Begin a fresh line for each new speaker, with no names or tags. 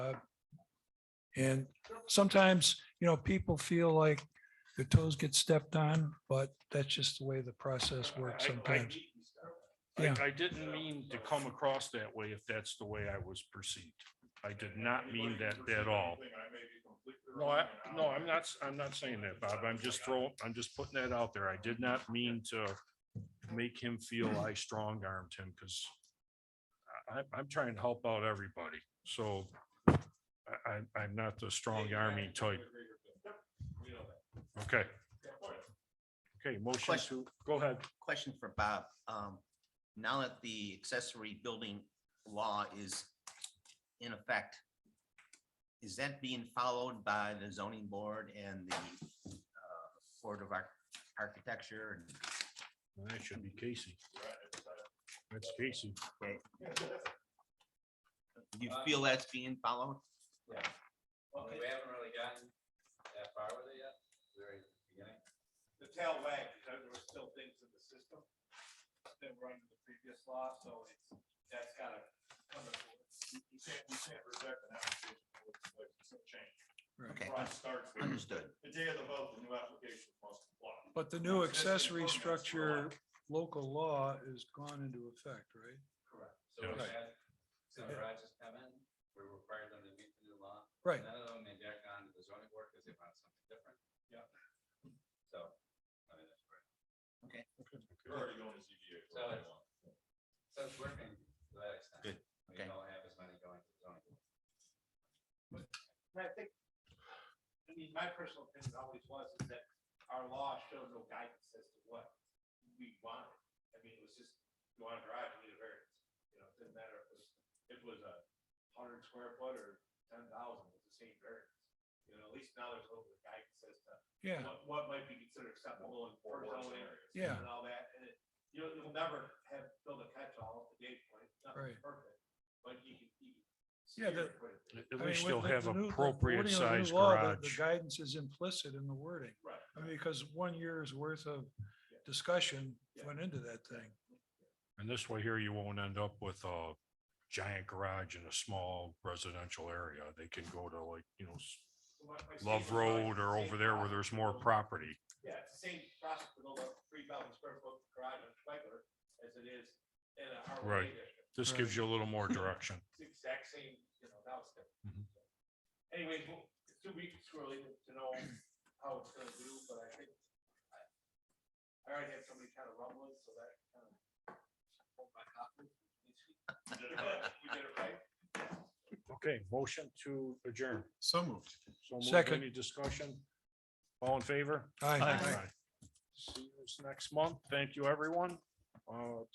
And sometimes, you know, people feel like their toes get stepped on, but that's just the way the process works
I- I-
sometimes.
I,
Yeah.
I didn't mean to come across that way if that's the way I was perceived. I did not mean that at all. No, I, no, I'm not, s- I'm not saying that, Bob. I'm just throwing, I'm just putting that out there. I did not mean to make him feel I strong armed him because I, I'm trying to help out everybody. So I, I, I'm not the strong army type. Okay. Okay, motion to,
Question.
go ahead.
Question for Bob. Um, now that the accessory building law is in effect, is that being followed by the zoning board and the uh, Board of Arch- Architecture? and-
Well, That should be Casey. That's Casey.
Do you feel that's being followed?
Yeah. Okay, we haven't really gotten that far with it yet, very beginning.
the tail wag, because there were still things in the system that were under the previous law, so it's, that's gotta come to force. You you can't, you can't reject an application with with some change.
Okay,
Right, starts with
understood.
the day of the vote, the new application must apply.
But the new accessory structure local law is gone into effect, right?
Correct. So we
Yes.
had, so garages come in, we require them to meet the new law.
Right.
None of them may back on to the zoning board because they want something different.
Yeah.
So, I mean, that's great.
You're already going to ZBA. for
So
what they
it's-
want.
So it's working to that extent.
Good.
We
Okay.
don't have as many going to the zoning. board.
And I think, I mean, my personal opinion always was is that our law showed no guidance as to what we wanted. I mean, it was just, you want a garage, you need a variance. You know, it didn't matter if it was, if it was a hundred square foot or ten thousand, it's the same variance. You know, at least now there's a little bit of guidance as to
Yeah,
what, what might be considered acceptable in for zoning areas.
Yeah.
And all that, and it, you know, you'll never have, build a catch-all at the gate point,
Right.
nothing's perfect, but you can, you can.
Yeah,
steer
the-
quite a bit.
I
At
mean,
least
with
they'll
the-
have
the new- the
appropriate
wording of the new
sized
law, the- The
garage.
guidance is implicit in the wording.
Right.
I mean, because one year's worth of discussion went into that thing.
And this way here, you won't end up with a giant garage in a small residential area. They can go to like, you know, s-
So my- my
Love
statement was
Road
the
or
same
over there where
process
there's more
for-
property.
Yeah, it's the same process for the three thousand square foot garage on Schweigler as it is in a R one A
Right.
district.
This gives you a little more direction.
It's the exact same, you know, now it's different.
Mhm.
Anyways, well, it's two weeks early to know how it's gonna do, but I think I I already had somebody kind of rumbling, so that kind of. We did it right. We did it right.
Okay, motion to adjourn.
So moved.
So moved.
Second.
any discussion? All in favor?
Aye.
See you next month. Thank you, everyone. Uh,